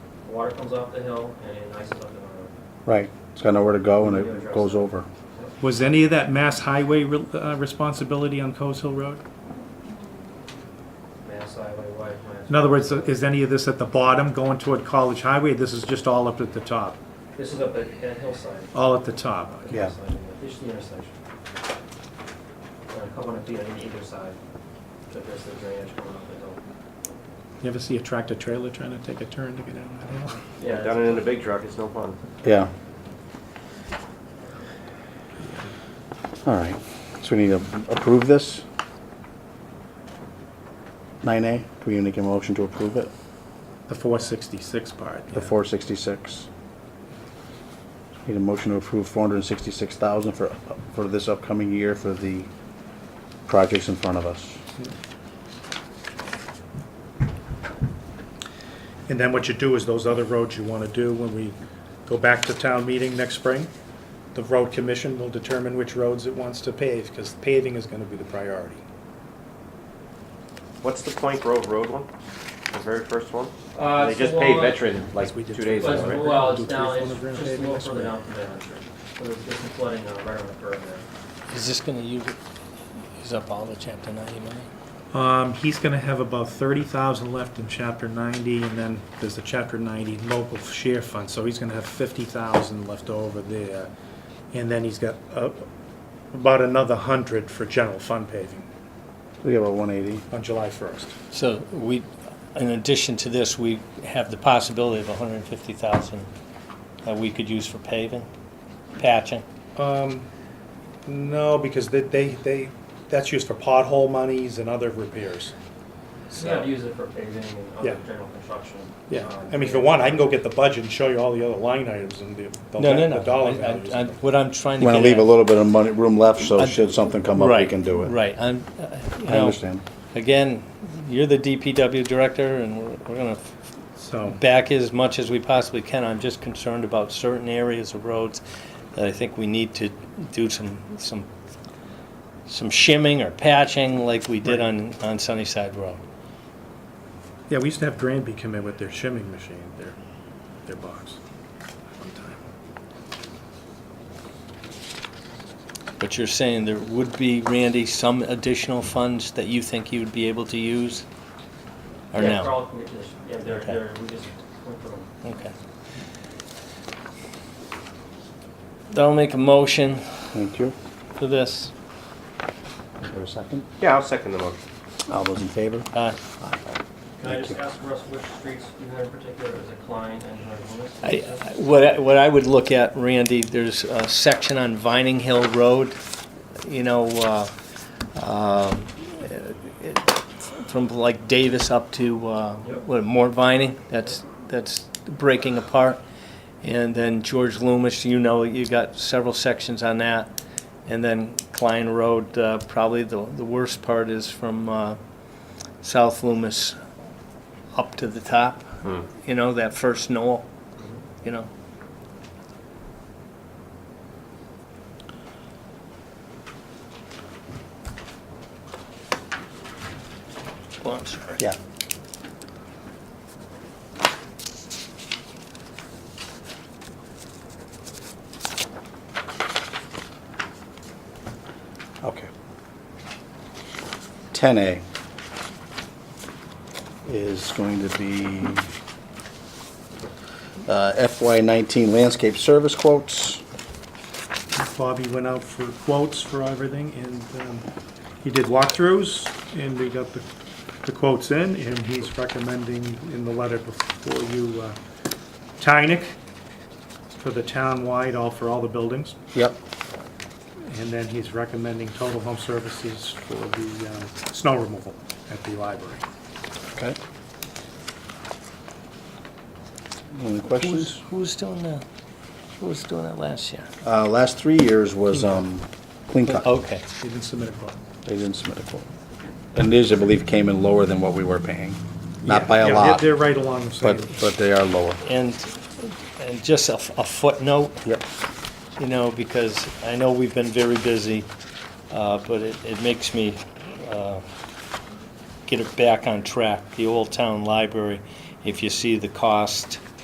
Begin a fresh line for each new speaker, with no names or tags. water comes off the hill and it ices up the uh, road.
Right, it's got nowhere to go and it goes over.
Was any of that mass highway re- uh, responsibility on Coes Hill Road?
Mass highway, wide mass.
In other words, is any of this at the bottom going toward College Highway? This is just all up at the top,
This is up at that hillside.
all at the top.
Yeah.
Hillside, This is the intersection. And a couple hundred feet on either side, to address the drainage coming up the hill.
You ever see a tractor trailer trying to take a turn to get down that hill?
Yeah,
Done
that's-
it in a big truck, it's no fun.
Yeah. All right, so we need to approve this? Nine A, do we need to get a motion to approve it?
The 466 part.
The
yeah.
four sixty-six. Need a motion to approve four hundred and sixty-six thousand for, for this upcoming year for the projects in front of us.
And then what you do is those other roads you want to do when we go back to town meeting next spring, the road commission will determine which roads it wants to pave because paving is going to be the priority.
What's the Plank Grove Road one? The very first one?
Uh,
They
it's
just
the
paid
one-
veteran like
we did
two days
two-
ago,
Right.
Well,
right?
well, it's
Do three
down, it's
corners around
just a
paving
little
this
further
way.
down from the entrance. So there's just some flooding uh, right on the curve there.
Is this gonna use, use up all the chapter ninety money?
Um, he's gonna have about thirty thousand left in chapter ninety, and then there's the chapter ninety local share fund, so he's gonna have fifty thousand left over there. And then he's got, uh, about another hundred for general fund paving
We have a one eighty.
on July first.
So we, in addition to this, we have the possibility of hundred and fifty thousand that we could use for paving, patching.
Um, no, because they, they, they, that's used for pothole monies and other repairs.
You gotta use it for paving and other
Yeah.
general construction.
Yeah,
Um,
I mean, if you want, I can go get the budget and show you all the other line items and the, the
No, no, no.
the dollar
I- I-
values.
I- What I'm trying to
We're
get
gonna
at.
leave a little bit of money, room left, so
I-
should something come up, we
Right,
can do it.
Right, I'm, uh, you
I
know,
understand.
again, you're the DPW director and we're, we're gonna
So,
back as much as we possibly can. I'm just concerned about certain areas of roads that I think we need to do some, some, some shimming or patching like we did on, on Sunnyside Road.
yeah, we used to have Granby come in with their shimming machine, their, their box. one time.
But you're saying there would be, Randy, some additional funds that you think you'd be able to use? Or
Yeah,
no?
Carl can get to this, yeah, they're,
Okay.
they're, we just went through them.
Okay. I'll make a motion
Thank you.
for this.
For a second.
Yeah, I'll second the motion.
All those in favor?
Uh,
Can I just ask Russ which streets you had in particular, is it Klein and Hardwick?
I, I- what, I- what I would look at, Randy, there's a section on Vining Hill Road, you know, uh, um, it- from like Davis up to, uh,
Yep.
what, Mort Vining, that's, that's breaking apart. And then George Loomis, you know, you got several sections on that. And then Klein Road, uh, probably the, the worst part is from, uh, South Loomis up to the top, you know, that first knoll, you know. Well, I'm sorry.
Yeah. Okay. Ten A is going to be uh, FY nineteen landscape service quotes.
Bobby went out for quotes for everything, and um, he did walkthroughs, and we got the the quotes in, and he's recommending in the letter before you, uh, Tynick for the town-wide, all, for all the buildings,
Yep.
and then he's recommending Total Home Services for the um, snow removal at the library.
Okay. Any questions?
Who's, who's doing that? Who was doing that last year?
Uh, last three years was, um, clean cut.
Okay,
He didn't submit a quote.
They didn't submit a quote. And these, I believe, came in lower than what we were paying. Not by
Yeah,
a
they're-
lot,
They're right along the same.
but, but they are lower.
and, and just a f a a footnote,
Yep.
you know, because I know we've been very busy, uh, but it, it makes me, uh, get it back on track. The Old Town Library, if you see the cost,